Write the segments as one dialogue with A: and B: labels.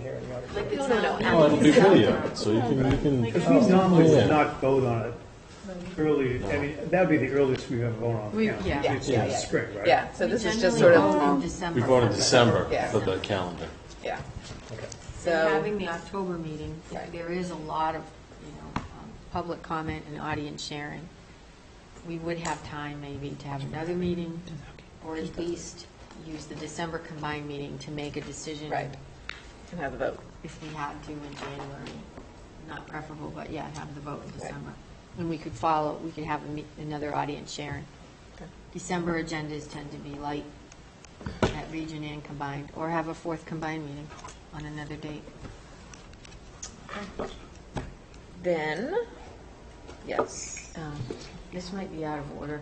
A: here in the auditorium.
B: Like, it's not.
C: No, it'll be video, so you can, you can.
A: Because we normally
C: Yeah.
A: would not vote on it early, I mean, that'd be the earliest we ever vote on
D: We-
A: the calendar.
D: yeah.
A: It's in the spring, right?
E: Yeah, so
D: We
E: this is just sort
D: generally vote in
E: of,
D: December.
C: We vote in December
E: Yeah.
C: for the calendar.
E: yeah.
A: Okay.
D: And
E: So,
D: having the October meeting,
E: Right.
D: there is a lot of, you know, um, public comment and audience sharing. We would have time maybe to have another meeting, or at least use the December combined meeting to make a decision.
E: right, can have the vote.
D: If we had to in January, not preferable, but yeah, have the vote in December. And we could follow, we could have a me- another audience sharing.
E: Okay.
D: December agendas tend to be light at region and combined, or have a fourth combined meeting on another date.
E: Then, yes,
D: Um, This might be out of order.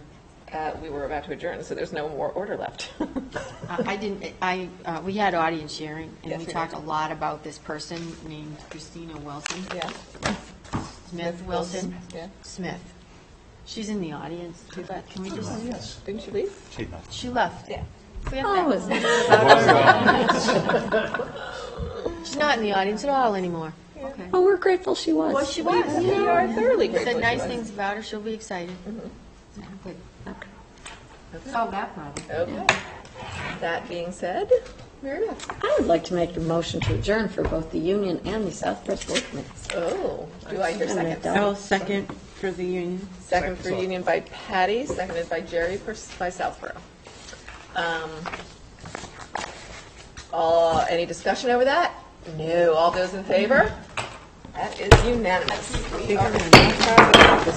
E: uh, we were about to adjourn, so there's no more order left.
D: I I didn't, I, uh, we had audience sharing,
E: Yes,
D: and we
E: we
D: talked a
E: did.
D: lot about this person named Christina Wilson,
E: Yeah.
D: Smith Wilson,
E: Yeah.
D: Smith. She's in the audience, too, but can we just,
E: Didn't you leave?
D: she left.
E: Yeah.
D: We have that. She's not in the audience at all anymore. Okay.
F: Oh, we're grateful she was.
D: Well, she was, you
E: You
D: know,
E: are thoroughly
D: said
E: grateful.
D: nice things about her, she'll be excited. Yeah,
F: Mm-hmm.
D: good. Solve that problem.
E: Okay. That being said, Meredith.
F: I would like to make a motion to adjourn for both the union and the Southbridge Board minutes.
E: Oh, do I hear a second?
D: Oh,
F: I'll
G: second for the union.
E: Second for Union by Patty, seconded by Jerry, pers- by Southborough. Um, All, any discussion over that? No, all those in favor? That is unanimous. We are-